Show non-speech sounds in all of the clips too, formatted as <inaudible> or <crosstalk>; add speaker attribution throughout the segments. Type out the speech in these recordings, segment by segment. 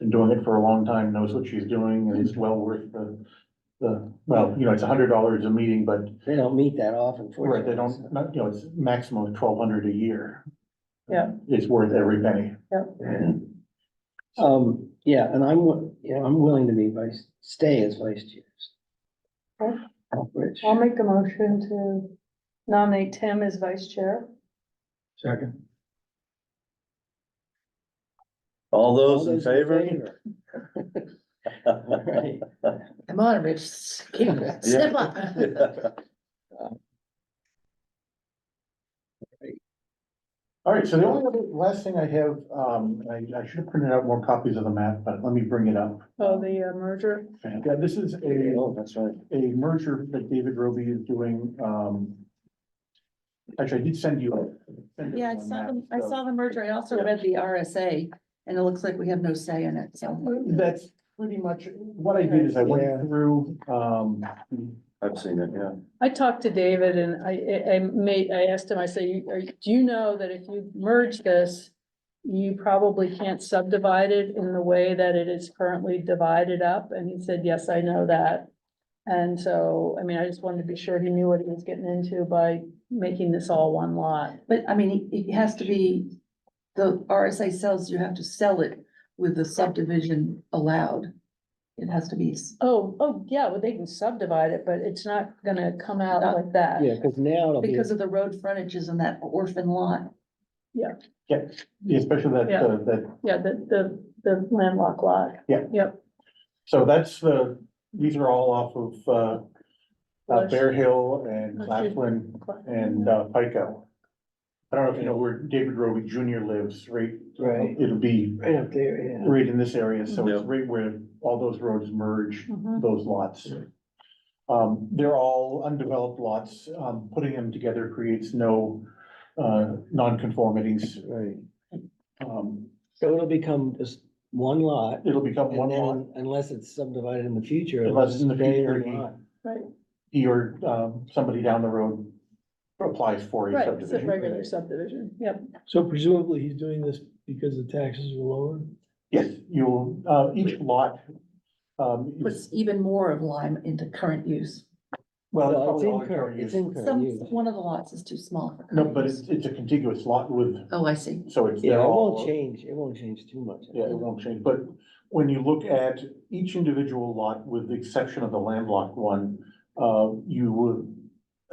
Speaker 1: been doing it for a long time, knows what she's doing, and it's well worth the, the, well, you know, it's a hundred dollars a meeting, but
Speaker 2: They don't meet that often.
Speaker 1: Right, they
Speaker 2: fortunately,
Speaker 1: don't, not, you know, it's maximum of twelve hundred a year.
Speaker 3: Yeah.
Speaker 1: It's worth every penny.
Speaker 2: so. Um, yeah, and I'm, wi- you know, I'm willing to be vice, stay as vice chair.
Speaker 3: Okay.
Speaker 2: Rich,
Speaker 3: I'll make a motion to nominate Tim as vice chair.
Speaker 4: Second. All those in favor? <laughs>
Speaker 2: All right.
Speaker 5: Come on, Rich, s- keep- step up.
Speaker 1: All right, so the only other, last thing I have, um, I, I should have printed out more copies of the map, but let me bring it up.
Speaker 3: Oh, the uh, merger.
Speaker 1: Yeah, this is a,
Speaker 4: Oh, that's right.
Speaker 1: a merger that David Roby is doing, um. Actually, I did send you. a- send you
Speaker 5: Yeah, I
Speaker 1: one
Speaker 5: saw
Speaker 1: map,
Speaker 5: them, I
Speaker 1: so-
Speaker 5: saw the merger. I also read the RSA and it looks like we have no say in it, so.
Speaker 1: That's pretty much, what I did is I
Speaker 2: Yeah.
Speaker 1: went through, um,
Speaker 4: I've seen it, yeah.
Speaker 3: I talked to David and I, I- I made, I asked him, I say, "You- are- do you know that if you merge this, you probably can't subdivide it in the way that it is currently divided up? And he said, yes, I know that. And so, I mean, I just wanted to be sure he knew what he was getting into by making this all one lot.
Speaker 5: But I mean, it it has to be, the RSA sells, you have to sell it with the subdivision allowed. It has to be, s-
Speaker 3: Oh, oh, yeah, well, they can subdivide it, but it's not gonna come out
Speaker 5: Not-
Speaker 3: like that.
Speaker 2: Yeah, because now it'll be,
Speaker 5: because of the road frontages and that orphan lot.
Speaker 1: especially that,
Speaker 3: Yeah.
Speaker 1: uh, that
Speaker 3: Yeah, the, the, the landlocked lot.
Speaker 1: Yeah.
Speaker 3: Yep,
Speaker 1: So that's the, these are all off of, uh, uh, Bear Hill and Claflin and, uh, Pico. I don't know if you know where David Roby Junior lives, right?
Speaker 2: right,
Speaker 1: It'll be
Speaker 2: right up there, yeah.
Speaker 1: right in this area, so it's
Speaker 4: Yeah.
Speaker 1: right where all those roads merge,
Speaker 3: Mhm.
Speaker 1: those lots. Um, they're all undeveloped lots, um, putting them together creates no, uh, nonconformities.
Speaker 2: Right.
Speaker 1: Um,
Speaker 2: So it'll become just one lot.
Speaker 1: it'll become one
Speaker 2: And
Speaker 1: lot,
Speaker 2: then unless it's subdivided in the future. it'll
Speaker 1: unless in the
Speaker 2: stay a
Speaker 1: future he-
Speaker 2: lot.
Speaker 3: right,
Speaker 1: he or, um, somebody down the road applies for a
Speaker 3: right, it's a
Speaker 1: subdivision.
Speaker 3: regular subdivision, yep.
Speaker 6: So presumably he's doing this because the taxes were lowered?
Speaker 1: Yes, you'll, uh, each lot, um, is-
Speaker 5: Puts even more of Lime into current use.
Speaker 1: well, it's
Speaker 2: Well, it's
Speaker 1: probably all
Speaker 2: in
Speaker 1: in
Speaker 2: current,
Speaker 1: current
Speaker 2: it's
Speaker 1: use.
Speaker 2: in current
Speaker 5: Some,
Speaker 2: use.
Speaker 5: one of the lots is too small for.
Speaker 1: No,
Speaker 5: current
Speaker 1: but
Speaker 5: use.
Speaker 1: it's, it's a contiguous lot with,
Speaker 5: Oh, I see.
Speaker 1: so it's,
Speaker 2: Yeah,
Speaker 1: they're
Speaker 2: it won't
Speaker 1: all,
Speaker 2: change, it won't change too much.
Speaker 1: yeah, it won't change, but when you look at each individual lot, with the exception of the landlocked one, uh, you would,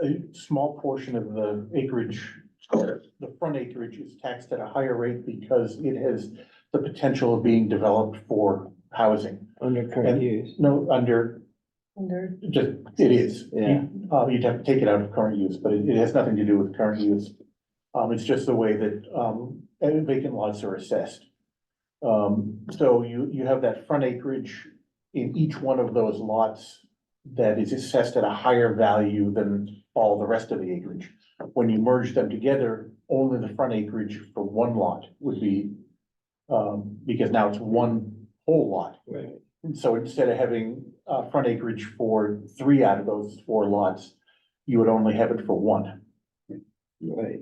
Speaker 1: a small portion of the acreage, the front acreage is taxed at a higher rate because it has the potential of being developed for housing.
Speaker 2: Under
Speaker 1: And-
Speaker 2: current use.
Speaker 1: No, under
Speaker 3: Under,
Speaker 1: Just, it is.
Speaker 2: Yeah.
Speaker 1: You- Uh, you'd have to take it out of current use, but it, it has nothing to do with current use. Um, it's just the way that, um, and vacant lots are assessed. Um, so you, you have that front acreage in each one of those lots that is assessed at a higher value than all the rest of the acreage. When you merge them together, only the front acreage for one lot would be, um, because now it's one whole lot.
Speaker 2: Right.
Speaker 1: And so instead of having uh front acreage for three out of those four lots, you would only have it for one.
Speaker 2: Right.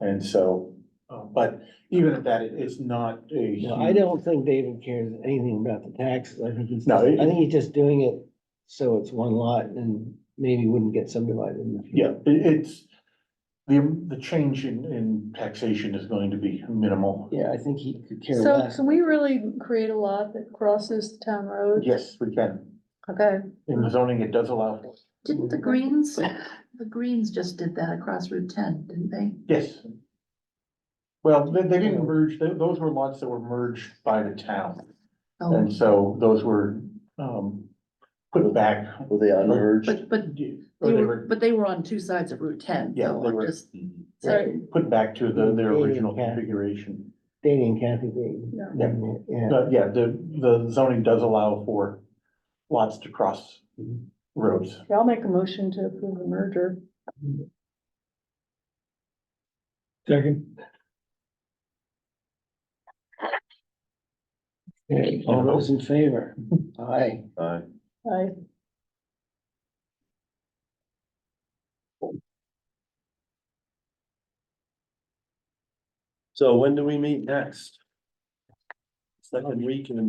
Speaker 1: And so, uh, but even at that, it- it's not a.
Speaker 2: No, I
Speaker 1: huge-
Speaker 2: don't think David cares anything about the taxes. I think he's,
Speaker 1: No,
Speaker 2: I
Speaker 1: it-
Speaker 2: think he's just doing it so it's one lot and maybe wouldn't get subdivided in the
Speaker 1: Yeah,
Speaker 2: future.
Speaker 1: it- it's, the, the change in, in taxation is going to be minimal.
Speaker 2: Yeah, I think he could care
Speaker 3: so
Speaker 2: less.
Speaker 3: can we really create a lot that crosses the town road?
Speaker 1: Yes, we can.
Speaker 3: Okay,
Speaker 1: In the zoning, it does allow for it.
Speaker 5: Didn't the Greens, the Greens just did that across Route ten, didn't they?
Speaker 1: Yes. Well, they, they didn't merge, tho- those were lots that were merged by the town.
Speaker 5: Oh,
Speaker 1: And so those were, um, put back.
Speaker 4: Were they unmerged?
Speaker 5: but, but
Speaker 1: Or
Speaker 5: they
Speaker 1: they
Speaker 5: were,
Speaker 1: were
Speaker 5: but they were on two sides of Route ten,
Speaker 1: Yeah,
Speaker 5: so
Speaker 1: they
Speaker 5: I'm
Speaker 1: were. mm-hmm.
Speaker 5: just.
Speaker 3: Right.
Speaker 1: put back to the, their
Speaker 2: Yeah,
Speaker 1: original
Speaker 2: yeah.
Speaker 1: configuration.
Speaker 2: Danny and Kathy Green.
Speaker 3: Yeah.
Speaker 1: Yeah.
Speaker 2: Yeah,
Speaker 1: But yeah, the, the zoning does allow for lots to cross
Speaker 2: Mhm.
Speaker 1: roads.
Speaker 3: okay, I'll make a motion to approve the merger.
Speaker 6: Second,
Speaker 2: Okay, all those in favor? Aye.
Speaker 4: Aye.
Speaker 3: I,
Speaker 4: So when do we meet next? Second week in